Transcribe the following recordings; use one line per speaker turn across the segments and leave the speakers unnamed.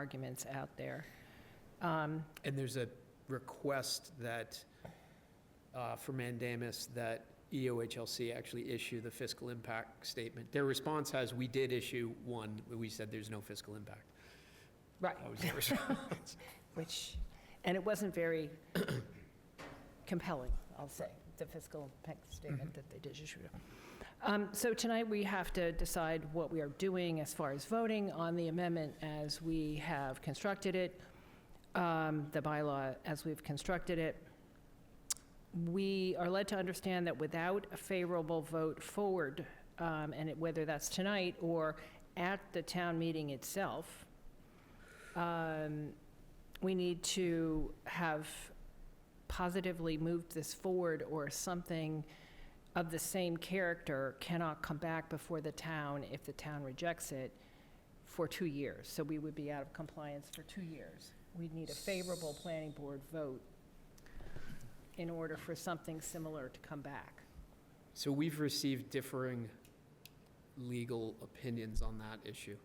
arguments out there.
And there's a request that, uh, for mandamus, that E EOHLC actually issue the fiscal impact statement. Their response has, we did issue one, but we said there's no fiscal impact.
Right.
That was their response.
Which, and it wasn't very compelling, I'll say, the fiscal impact statement that they did issue. Um, So tonight, we have to decide what we are doing as far as voting on the amendment as we have constructed it, um, the bylaw as we've constructed it. We are led to understand that without a favorable vote forward, um, and it- whether that's tonight or at the town meeting itself, um, we need to have positively moved this forward or something of the same character cannot come back before the town if the town rejects it for two years. So we would be out of compliance for two years. We'd need a favorable planning board vote in order for something similar to come back.
So we've received differing legal opinions on that issue.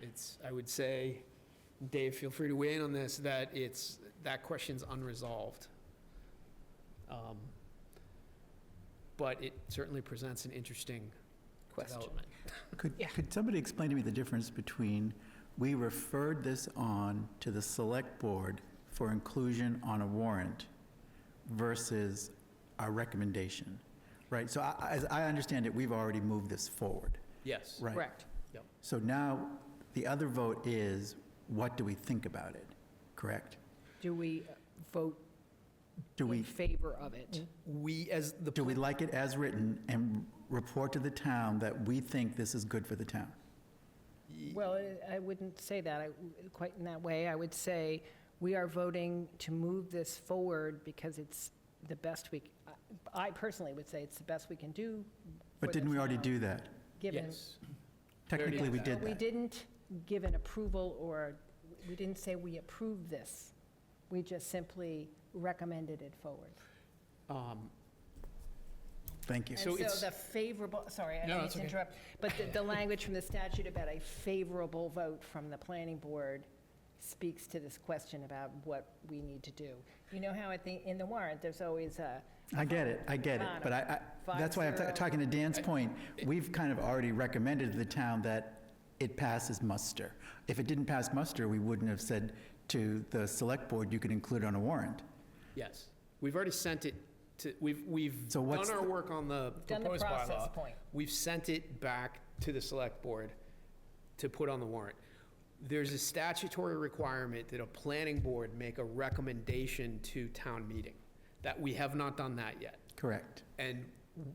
It's, I would say, Dave, feel free to weigh in on this, that it's, that question's unresolved. Um, But it certainly presents an interesting development.
Could,
Yeah.
could somebody explain to me the difference between, we referred this on to the select board for inclusion on a warrant versus our recommendation, right? So I- I- as I understand it, we've already moved this forward,
Yes.
right?
Correct.
So now, the other vote is, what do we think about it, correct?
Do we vote
Do
in
we,
favor of it?
We, as the.
do we like it as written and report to the town that we think this is good for the town?
Well, I- I wouldn't say that I- quite in that way. I would say we are voting to move this forward because it's the best we, c- I I personally would say it's the best we can do. for
But
the
didn't we already
town,
do that?
Given,
Yes. already
Technically, we
did
did
we
that.
didn't give an approval or, we didn't say we approve this. We just simply recommended it forward.
Um,
Thank you.
And
So
so
it's-
the favorable, sorry, I
No,
didn't mean
that's
to
okay.
interrupt, but the, the language from the statute about a favorable vote from the planning board speaks to this question about what we need to do. You know how at the, in the warrant, there's always a,
I get it, I get it, but I, I,
Five
that's why I'm
zero.
ta- talking to Dan's point, we've kind of already recommended to the town that it passes muster. If it didn't pass muster, we wouldn't have said to the select board, you could include it on a warrant.
Yes. We've already sent it to, we've, we've
So
done
what's
our
the-
work on the
Done the
proposed bylaw.
process point.
We've sent it back to the select board to put on the warrant. There's a statutory requirement that a planning board make a recommendation to town meeting, that we have not done that yet.
Correct.
And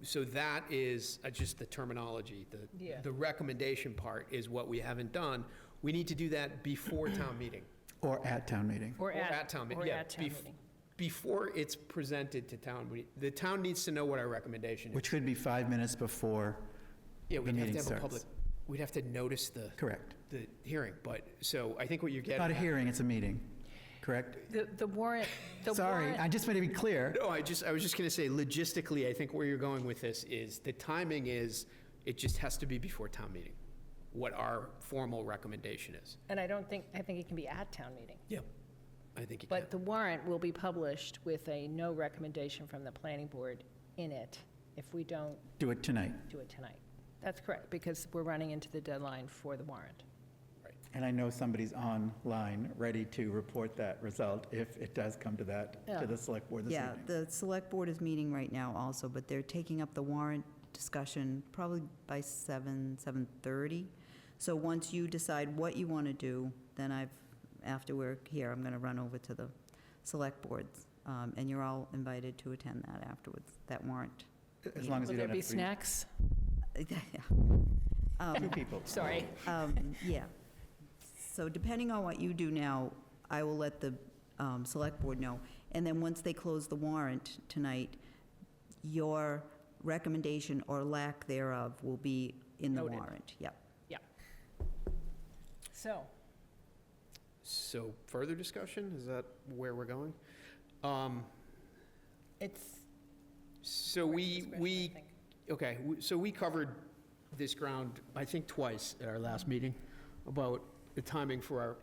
so that is uh, just the terminology, the,
Yeah.
the recommendation part is what we haven't done. We need to do that before town meeting.
Or at town meeting.
or
Or at town, meeting.
or
yeah.
at town
bef-
meeting.
Before it's presented to town, we- the town needs to know what our recommendation is.
Which could be five minutes before,
Yeah,
the
we'd have
meeting
to have a
starts.
public, we'd have to notice the,
correct.
the hearing, but, so I think what you're getting.
Not a
at-
hearing, it's a meeting, correct?
The, the warrant, the warrant.
Sorry, I just made it be clear.
No, I just, I was just gonna say, logistically, I think where you're going with this is, the timing is, it just has to be before town meeting, what our formal recommendation is.
And I don't think, I think it can be at town meeting.
Yep. I think it can.
But the warrant will be published with a no recommendation from the planning board in it if we don't
Do it tonight.
do it tonight. That's correct, because we're running into the deadline for the warrant.
And I know somebody's online, ready to report that result if it does come to that,
Yeah.
to the select board this
Yeah,
evening.
the select board is meeting right now also, but they're taking up the warrant discussion probably by seven, seven-thirty. So once you decide what you want to do, then I've, after we're here, I'm going to run over to the select boards. um, And you're all invited to attend that afterwards, that warrant.
As long as
Will
we
there
don't
be
have three.
snacks?
Two people.
Sorry.
Um, Yeah. So depending on what you do now, I will let the um, Select Board know. And then once they close the warrant tonight, your recommendation or lack thereof will be in the
Noted.
warrant. Yep.
So,
So further discussion, is that where we're going? Um,
it's.
So we, we, okay, w- so we covered this ground, I think, twice at our last meeting about the timing for our